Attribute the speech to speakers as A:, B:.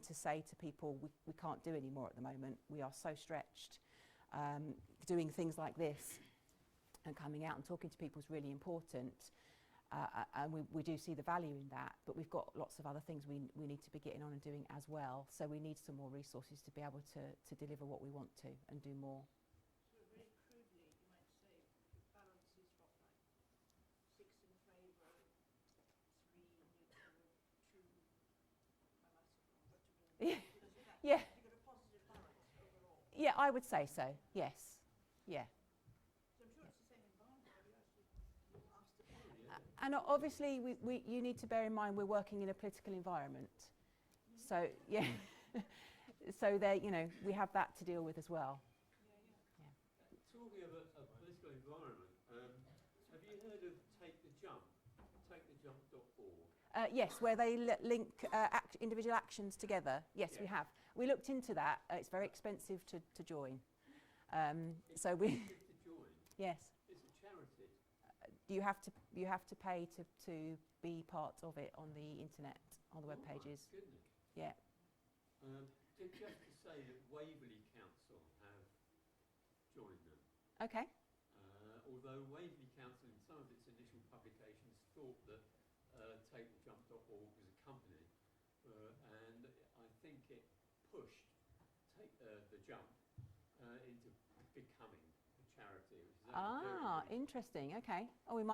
A: to say to people, we, we can't do any more at the moment. We are so stretched. Um, doing things like this and coming out and talking to people is really important. Uh, a- and we, we do see the value in that, but we've got lots of other things we, we need to be getting on and doing as well. So we need some more resources to be able to, to deliver what we want to and do more.
B: So very crudely, you might say, the balance is what, like six in favour, three neutral, two, I might have what you mean.
A: Yeah.
B: Because you have-
A: Yeah.
B: You've got a positive balance overall.
A: Yeah, I would say so. Yes. Yeah.
B: So I'm sure it's the same environment, but you actually, you asked the
A: A- And o- obviously, we, we, you need to bear in mind we're working in a political environment. So, yeah. so there, you know, we have that to deal with as well.
C: Talking of a, a political environment, um, have you heard of Take the Jump? TakeTheJump.org.
A: Uh, yes, where they li- link uh, act- individual actions together. Yes, we
C: Yeah.
A: have. We looked into that. Uh, it's very expensive to, to join. Um,
C: It's
A: so we,
C: free to join.
A: yes,
C: It's a charity.
A: you have to you have to pay to, to be part of it on the internet, on the web
C: Oh my
A: pages.
C: goodness.
A: Yeah.
C: Um, ju- just to say that Waverley Council have joined them.
A: Okay.
C: Uh, although Waverley Council, in some of its initial publications, thought that uh, TakeTheJump.org was a company, uh, and I think it pushed Take uh, the Jump uh, into becoming a charity, which is actually very
A: Ah,
C: good.
A: interesting. Okay. Oh, we might